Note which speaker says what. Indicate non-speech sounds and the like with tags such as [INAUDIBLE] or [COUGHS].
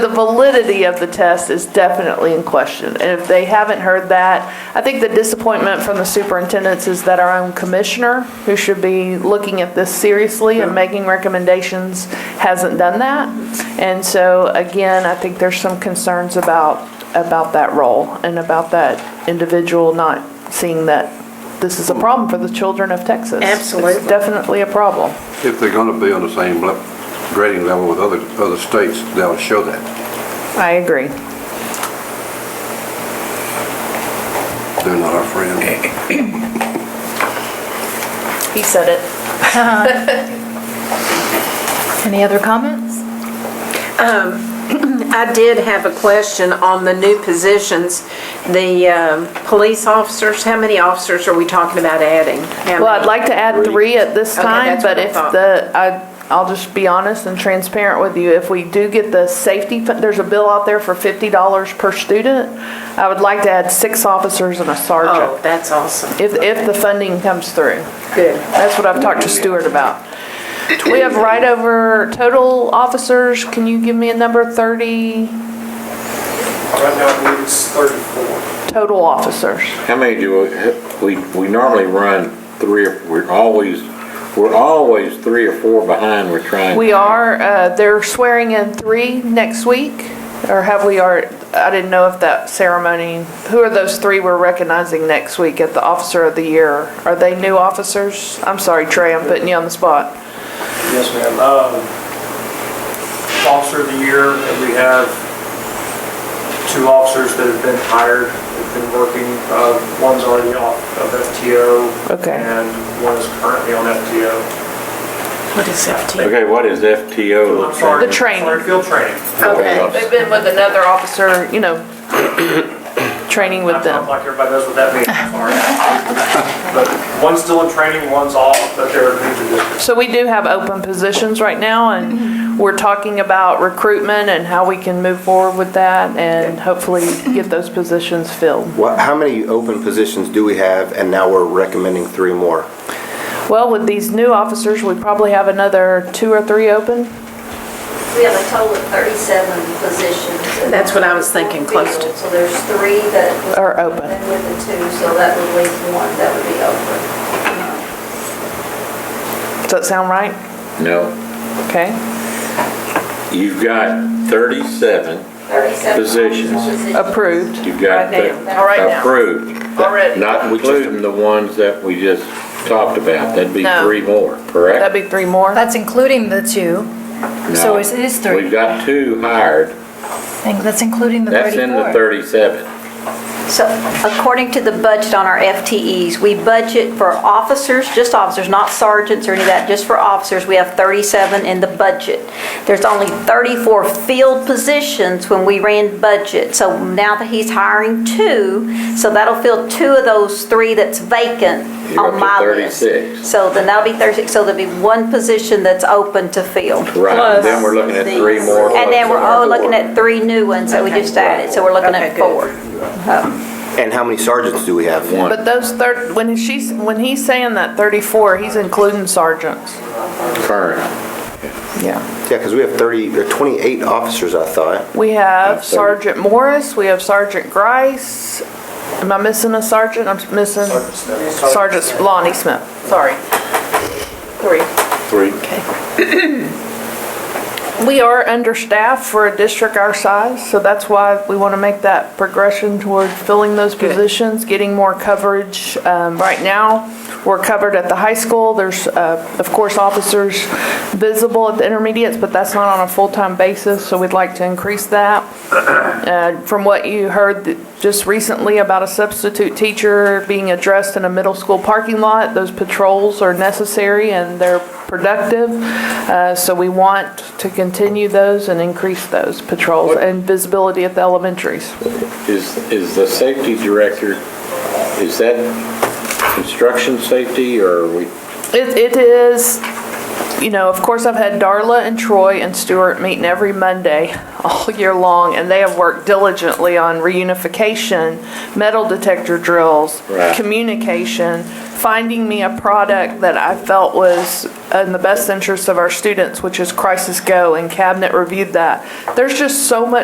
Speaker 1: The validity of the test is definitely in question, and if they haven't heard that, I think the disappointment from the superintendents is that our own commissioner, who should be looking at this seriously and making recommendations, hasn't done that. And so, again, I think there's some concerns about, about that role and about that individual not seeing that this is a problem for the children of Texas. It's
Speaker 2: Absolutely.
Speaker 1: definitely a problem.
Speaker 3: If they're gonna be on the same le- grading level with other, other states, they'll show that.
Speaker 1: I agree.
Speaker 3: They're not our friend.
Speaker 4: He said it. Any other comments?
Speaker 2: I did have a question on the new positions, the um, police officers, how many officers are we talking about adding? How
Speaker 1: Well, I'd
Speaker 2: many?
Speaker 1: like to add three at this
Speaker 2: Okay,
Speaker 1: time,
Speaker 2: that's what
Speaker 1: but
Speaker 2: I
Speaker 1: if
Speaker 2: thought.
Speaker 1: the, I, I'll just be honest and transparent with you. If we do get the safety, fu- there's a bill out there for fifty dollars per student. I would like to add six officers and a
Speaker 2: Oh,
Speaker 1: sergeant,
Speaker 2: that's awesome.
Speaker 1: if, if the funding comes through.
Speaker 2: Good.
Speaker 1: That's what I've talked to Stewart about. We have right over total officers, can you give me a number, thirty
Speaker 5: Right now, I believe it's 34.
Speaker 1: total officers?
Speaker 6: How many do we, we, we normally run three, or we're always, we're always three or four behind, we're trying.
Speaker 1: We are, uh, they're swearing in three next week, or have we are, I didn't know if that ceremony, who are those three we're recognizing next week at the Officer of the Year? Are they new officers? I'm sorry, Trey, I'm putting you on the spot.
Speaker 5: Yes, ma'am. Um, Officer of the Year, and we have two officers that have been hired, have been working. Uh, One's already off of FTO.
Speaker 1: Okay.
Speaker 5: And one is currently on FTO.
Speaker 2: What is FT?
Speaker 6: Okay, what is FTO?
Speaker 5: I'm sorry.
Speaker 1: The training.
Speaker 5: Sorry, Field training.
Speaker 2: Okay.
Speaker 1: They've been with another officer, you know, [COUGHS] training with
Speaker 5: I'm
Speaker 1: them.
Speaker 5: like everybody knows what that means, I'm
Speaker 1: [LAUGHS]
Speaker 5: sorry. But one's still in training, one's off, but they're new to this.
Speaker 1: So we do have open positions right now, and we're talking about recruitment and how we can move forward with that and hopefully get those positions filled.
Speaker 7: What, how many open positions do we have, and now we're recommending three more?
Speaker 1: Well, with these new officers, we probably have another two or three open.
Speaker 8: We have a total of 37 positions. in
Speaker 2: That's what I was thinking, close to.
Speaker 8: field. So there's three that.
Speaker 1: Are open.
Speaker 8: And with the two, so that would leave one that would be open.
Speaker 1: Does that sound right?
Speaker 6: No,
Speaker 1: Okay.
Speaker 6: you've got thirty-seven,
Speaker 8: 37
Speaker 6: Positions.
Speaker 1: Approved.
Speaker 6: you've got.
Speaker 2: Right
Speaker 6: the-
Speaker 1: now. All right now.
Speaker 6: Approved.
Speaker 1: Already.
Speaker 6: Not including the ones that we just talked about, that'd be
Speaker 1: No.
Speaker 6: three more, correct?
Speaker 1: That'd be three more.
Speaker 4: That's including the two. so
Speaker 6: No.
Speaker 4: it is three.
Speaker 6: We've got two hired,
Speaker 4: I think that's including the 34.
Speaker 6: that's in the thirty-seven.
Speaker 9: So according to the budget on our FTEs, we budget for officers, just officers, not sergeants or any of that, just for officers, we have 37 in the budget. There's only 34 field positions when we ran budget. So now that he's hiring two, so that'll fill two of those three that's vacant
Speaker 6: You're up to
Speaker 9: on my list.
Speaker 6: 36.
Speaker 9: So then that'll be 36, so there'll be one position that's open to fill.
Speaker 6: Right, and then we're looking at three more.
Speaker 9: And then we're all
Speaker 6: all
Speaker 9: looking at three new ones that we
Speaker 2: Okay.
Speaker 9: just added, so we're looking
Speaker 2: Okay,
Speaker 9: at
Speaker 2: good.
Speaker 9: four. Oh.
Speaker 7: And how many sergeants do we have?
Speaker 6: One.
Speaker 1: But those third, when she's, when he's saying that thirty-four, he's including sergeants.
Speaker 6: Current.
Speaker 1: Yeah.
Speaker 7: Yeah, because we have 30, or 28 officers, I thought.
Speaker 1: We have
Speaker 6: Thirty.
Speaker 1: Sergeant Morris, we have Sergeant Grice. Am I missing a sergeant? I'm missing
Speaker 5: Sergeant Smith.
Speaker 1: Sergeant Lonnie Smith. Sorry. Three.
Speaker 6: Three.
Speaker 1: We are understaffed for a district our size, so that's why we want to make that progression toward filling those positions, getting more coverage. Um, Right now, we're covered at the high school. There's, uh, of course, officers visible at the intermediates, but that's not on a full-time basis, so we'd like to increase that. Uh, From what you heard th- just recently about a substitute teacher being addressed in a middle school parking lot, those patrols are necessary and they're productive. Uh, So we want to continue those and increase those patrols and visibility at the elementaries.
Speaker 6: Is, is the safety director, is that construction safety or are we,
Speaker 1: It, it is you know, of course, I've had Darla and Troy and Stuart meeting every Monday all year long, and they have worked diligently on reunification, metal detector drills,
Speaker 6: Right.
Speaker 1: communication, finding me a product that I felt was in the best interest of our students, which is Crisis Go, and Cabinet reviewed that. There's just so much